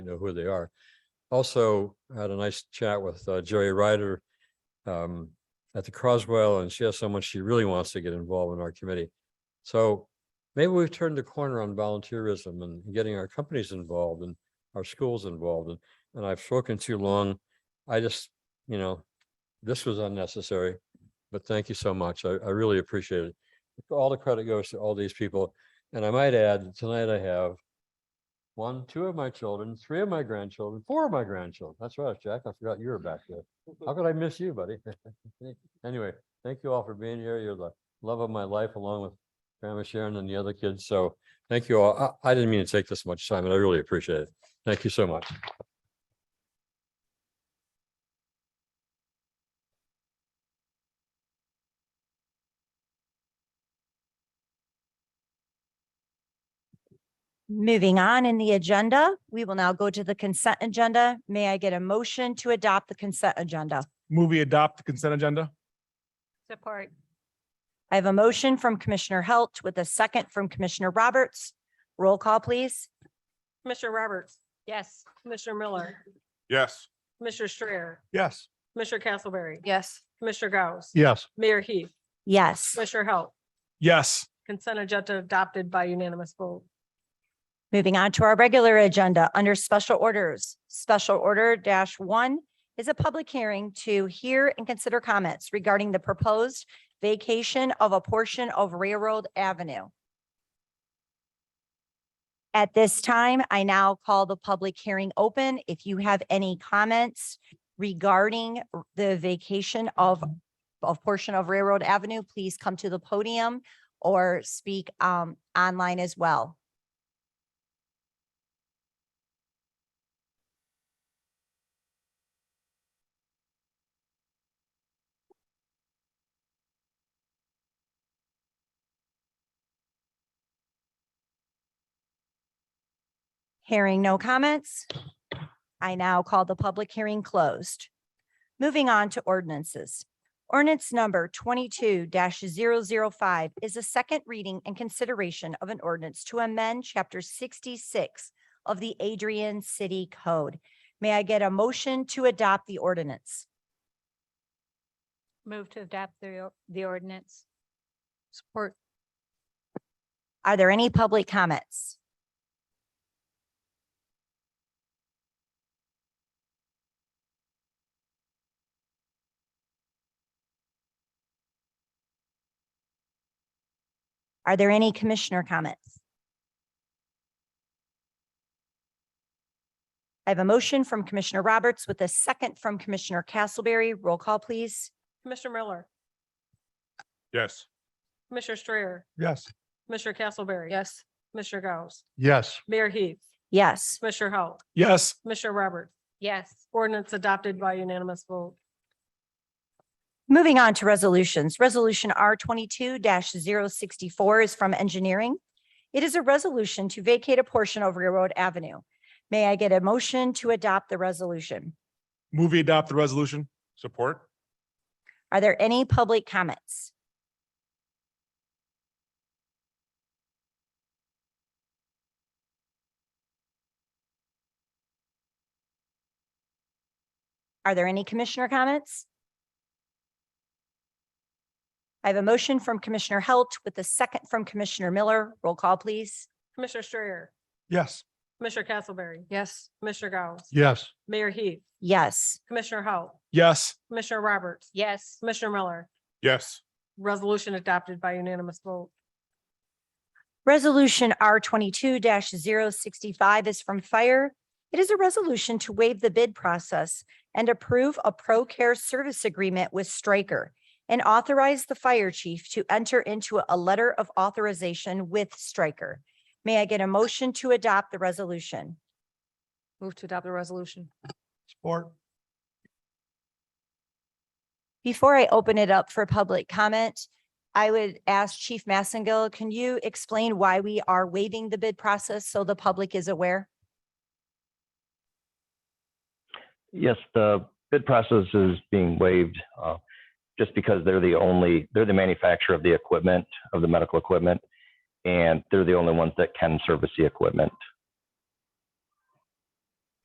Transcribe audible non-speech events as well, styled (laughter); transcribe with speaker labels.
Speaker 1: you know who they are. Also, I had a nice chat with uh, Jerry Ryder um, at the Croswell, and she has someone she really wants to get involved in our committee. So maybe we've turned the corner on volunteerism and getting our companies involved and our schools involved. And, and I've spoken too long. I just, you know, this was unnecessary, but thank you so much. I, I really appreciate it. All the credit goes to all these people. And I might add, tonight I have one, two of my children, three of my grandchildren, four of my grandchildren. That's right, Jack. I forgot you were back there. How could I miss you, buddy? (laughs) Anyway, thank you all for being here. You're the love of my life along with Grandma Sharon and the other kids. So thank you all. I, I didn't mean to take this much time and I really appreciate it. Thank you so much.
Speaker 2: Moving on in the agenda, we will now go to the consent agenda. May I get a motion to adopt the consent agenda?
Speaker 3: Movie adopt the consent agenda?
Speaker 4: Support.
Speaker 2: I have a motion from Commissioner Halt with a second from Commissioner Roberts. Roll call, please.
Speaker 4: Commissioner Roberts. Yes. Commissioner Miller.
Speaker 3: Yes.
Speaker 4: Commissioner Strayer.
Speaker 3: Yes.
Speaker 4: Commissioner Castleberry.
Speaker 5: Yes.
Speaker 4: Commissioner Gauss.
Speaker 3: Yes.
Speaker 4: Mayor Heath.
Speaker 2: Yes.
Speaker 4: Commissioner Halt.
Speaker 3: Yes.
Speaker 4: Consent agenda adopted by unanimous vote.
Speaker 2: Moving on to our regular agenda, under special orders, special order dash one is a public hearing to hear and consider comments regarding the proposed vacation of a portion of Railroad Avenue. At this time, I now call the public hearing open. If you have any comments regarding r- the vacation of a portion of Railroad Avenue, please come to the podium or speak um, online as well. Hearing no comments, I now call the public hearing closed. Moving on to ordinances. Ordinance number twenty-two 5 is a second reading and consideration of an ordinance to amend chapter sixty-six of the Adrian City Code. May I get a motion to adopt the ordinance?
Speaker 5: Move to adopt the, the ordinance. Support.
Speaker 2: Are there any public comments? Are there any commissioner comments? I have a motion from Commissioner Roberts with a second from Commissioner Castleberry. Roll call, please.
Speaker 4: Commissioner Miller.
Speaker 3: Yes.
Speaker 4: Commissioner Strayer.
Speaker 3: Yes.
Speaker 4: Commissioner Castleberry.
Speaker 5: Yes.
Speaker 4: Commissioner Gauss.
Speaker 3: Yes.
Speaker 4: Mayor Heath.
Speaker 2: Yes.
Speaker 4: Commissioner Halt.
Speaker 3: Yes.
Speaker 4: Commissioner Roberts.
Speaker 5: Yes.
Speaker 4: Ordinance adopted by unanimous vote.
Speaker 2: Moving on to resolutions, Resolution R twenty-two 64 is from engineering. It is a resolution to vacate a portion of Railroad Avenue. May I get a motion to adopt the resolution?
Speaker 3: Movie adopt the resolution? Support.
Speaker 2: Are there any public comments? Are there any commissioner comments? I have a motion from Commissioner Halt with a second from Commissioner Miller. Roll call, please.
Speaker 4: Commissioner Strayer.
Speaker 3: Yes.
Speaker 4: Commissioner Castleberry.
Speaker 5: Yes.
Speaker 4: Commissioner Gauss.
Speaker 3: Yes.
Speaker 4: Mayor Heath.
Speaker 2: Yes.
Speaker 4: Commissioner Halt.
Speaker 3: Yes.
Speaker 4: Commissioner Roberts.
Speaker 5: Yes.
Speaker 4: Commissioner Miller.
Speaker 3: Yes.
Speaker 4: Resolution adopted by unanimous vote.
Speaker 2: Resolution R twenty-two 65 is from Fire. It is a resolution to waive the bid process and approve a pro care service agreement with Stryker and authorize the fire chief to enter into a letter of authorization with Stryker. May I get a motion to adopt the resolution?
Speaker 5: Move to adopt the resolution.
Speaker 3: Support.
Speaker 2: Before I open it up for public comment, I would ask Chief Massengill, can you explain why we are waiving the bid process so the public is aware?
Speaker 6: Yes, the bid process is being waived uh, just because they're the only, they're the manufacturer of the equipment, of the medical equipment, and they're the only ones that can service the equipment.